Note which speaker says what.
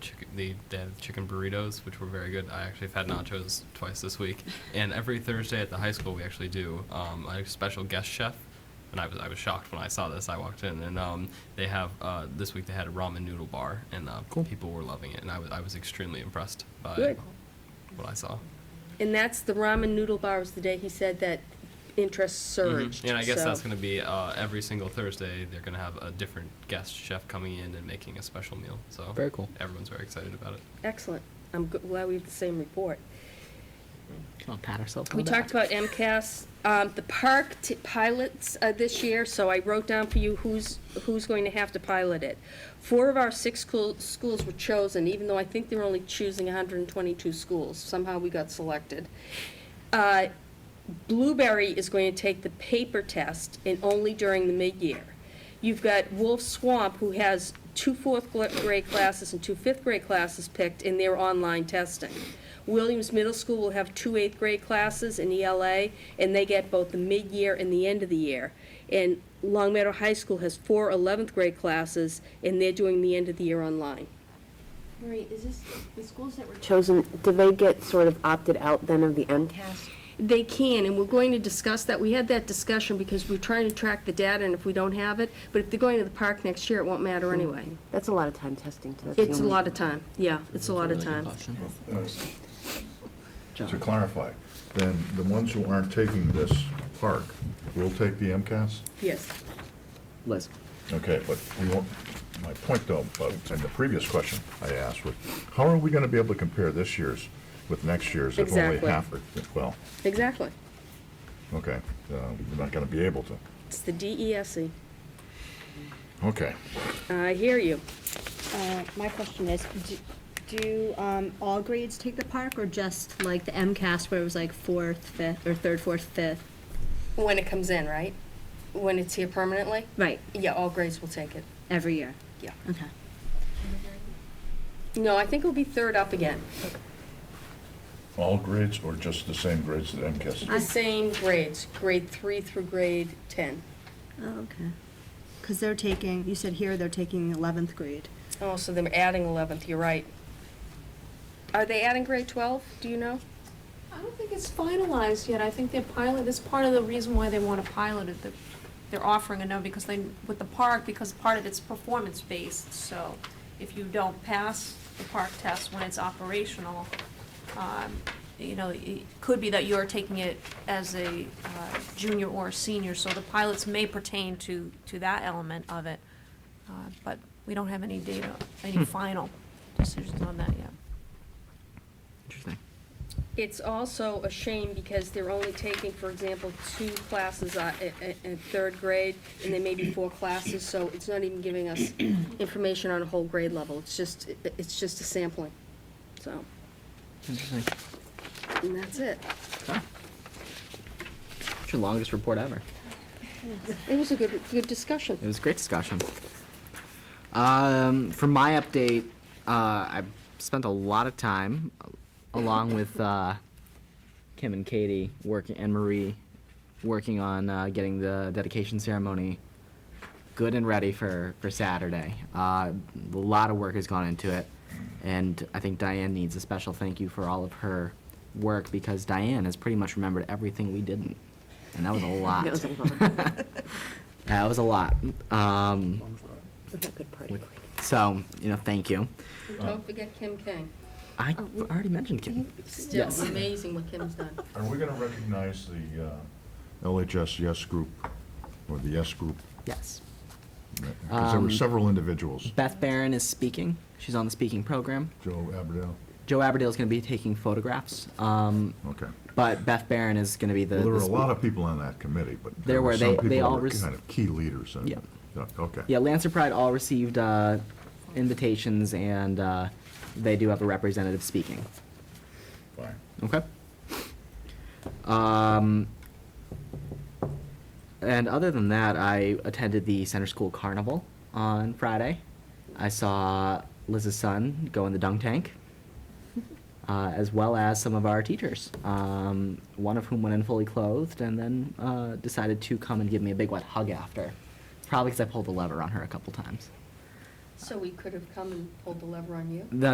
Speaker 1: the they have chicken burritos, which were very good. I actually have had nachos twice this week, and every Thursday at the high school we actually do um, a special guest chef. And I was I was shocked when I saw this. I walked in and um, they have uh, this week they had a ramen noodle bar, and uh,
Speaker 2: Cool.
Speaker 1: people were loving it, and I was I was extremely impressed by
Speaker 3: Good.
Speaker 1: what I saw.
Speaker 3: And that's the ramen noodle bar was the day he said that interest surged.
Speaker 1: Mhm. And I guess
Speaker 3: so-
Speaker 1: that's going to be uh, every single Thursday. They're going to have a different guest chef coming in and making a special meal. So
Speaker 2: Very cool.
Speaker 1: Everyone's very excited about it.
Speaker 3: Excellent. I'm g- glad we have the same report.
Speaker 2: Come on, pat ourselves on
Speaker 3: We
Speaker 2: the
Speaker 3: talked
Speaker 2: back.
Speaker 3: about MCAS, um, the park t- pilots uh, this year, so I wrote down for you who's, who's going to have to pilot it. Four of our six school- schools were chosen, even though I think they're only choosing 122 schools. Somehow we got selected. Uh, Blueberry is going to take the paper test and only during the mid-year. You've got Wolf Swamp, who has two fourth gla- grade classes and two fifth grade classes picked in their online testing. Williams Middle School will have two eighth grade classes in ELA, and they get both the mid-year and the end of the year. And Long Meadow High School has four 11th grade classes, and they're doing the end of the year online.
Speaker 4: Marie, is this, the schools that were chosen, do they get sort of opted out then of the MCAS?
Speaker 3: They can, and we're going to discuss that. We had that discussion because we're trying to track the data, and if we don't have it, but if they're going to the park next year, it won't matter anyway.
Speaker 4: That's a lot of time testing, too. That's the
Speaker 3: It's a
Speaker 4: only-
Speaker 3: lot of time, yeah, it's a lot of
Speaker 2: Really good
Speaker 3: time.
Speaker 2: option.
Speaker 5: To clarify, then the ones who aren't taking this park will take the MCAS?
Speaker 3: Yes.
Speaker 2: Liz,
Speaker 5: Okay, but we won't, my point though, but in the previous question I asked was, how are we gonna be able to compare this year's with next year's if only
Speaker 3: Exactly.
Speaker 5: half are, well,
Speaker 3: Exactly.
Speaker 5: okay, uh, we're not gonna be able to.
Speaker 3: It's the DESE.
Speaker 5: Okay.
Speaker 3: E. I hear you.
Speaker 6: Uh, My question is, d- do um, all grades take the park, or just like the MCAS where it was like fourth, fifth, or third, fourth, fifth?
Speaker 3: When it comes in, right? When it's here permanently?
Speaker 6: Right,
Speaker 3: Yeah, all grades will take it,
Speaker 6: every year?
Speaker 3: yeah.
Speaker 6: Okay.
Speaker 3: No, I think it'll be third up again.
Speaker 5: All grades or just the same grades that MCAS?
Speaker 3: The same grades, grade three through grade 10.
Speaker 6: Oh, okay. Because they're taking, you said here they're taking 11th grade.
Speaker 3: Oh, so they're adding 11th, you're right. Are they adding grade 12, do you know?
Speaker 7: I don't think it's finalized yet. I think they're pilot, that's part of the reason why they want to pilot it. that They're offering it now because they, with the park, because part of it's performance-based. So if you don't pass the park test when it's operational, um, you know, it could be that you're taking it as a uh, junior or a senior. So the pilots may pertain to, to that element of it. Uh, But we don't have any data, any final decisions on that yet.
Speaker 2: interesting.
Speaker 3: It's also a shame because they're only taking, for example, two classes uh, i- i- in third grade, and then maybe four classes, so it's not even giving us information on a whole grade level. It's just, it- it's just a sampling, so,
Speaker 2: Interesting.
Speaker 3: and that's it.
Speaker 2: Okay. It's your longest report ever.
Speaker 3: It was a good, good discussion.
Speaker 2: It was a great discussion. Um, for my update, uh, I spent a lot of time along with uh, Kim and Katie working and Marie working on uh, getting the dedication ceremony good and ready for for Saturday. Uh, a lot of work has gone into it, and I think Diane needs a special thank you for all of her work because Diane has pretty much remembered everything we didn't, and that was a lot.
Speaker 4: That was a lot.
Speaker 2: That was a lot. Um,
Speaker 4: That's a good party.
Speaker 2: so, you know, thank you.
Speaker 3: And Don't forget Kim Kang.
Speaker 2: I already mentioned Kim.
Speaker 3: Still
Speaker 2: Yes.
Speaker 3: amazing what Kim's done.
Speaker 5: Are we gonna recognize the uh, LHS Yes Group or the Yes Group?
Speaker 2: Yes.
Speaker 5: Because there were
Speaker 2: Um,
Speaker 5: several individuals,
Speaker 2: Beth Barron is speaking. She's on the speaking program.
Speaker 5: Joe Aberdell,
Speaker 2: Joe Aberdale's going to be taking photographs. Um,
Speaker 5: okay.
Speaker 2: but Beth Barron is going to be the.
Speaker 5: Well,
Speaker 2: the
Speaker 5: there were a lot
Speaker 2: speak-
Speaker 5: of people on that committee, but
Speaker 2: There
Speaker 5: there
Speaker 2: were.
Speaker 5: were some
Speaker 2: They- they
Speaker 5: people
Speaker 2: all
Speaker 5: that were
Speaker 2: rec-
Speaker 5: kind of key leaders. and-
Speaker 2: Yeah.
Speaker 5: Yeah, Okay.
Speaker 2: Yeah, Lancer Pride all received uh, invitations, and uh, they do have a representative speaking.
Speaker 5: Fine.
Speaker 2: Okay. Um, and other than that, I attended the Center School Carnival on Friday. I saw Liz's son go in the dunk tank, uh, as well as some of our teachers, um, one of whom went in fully clothed and then uh, decided to come and give me a big wet hug after. Probably because I pulled the lever on her a couple times.
Speaker 3: So we could have come and pulled the lever on you?
Speaker 2: The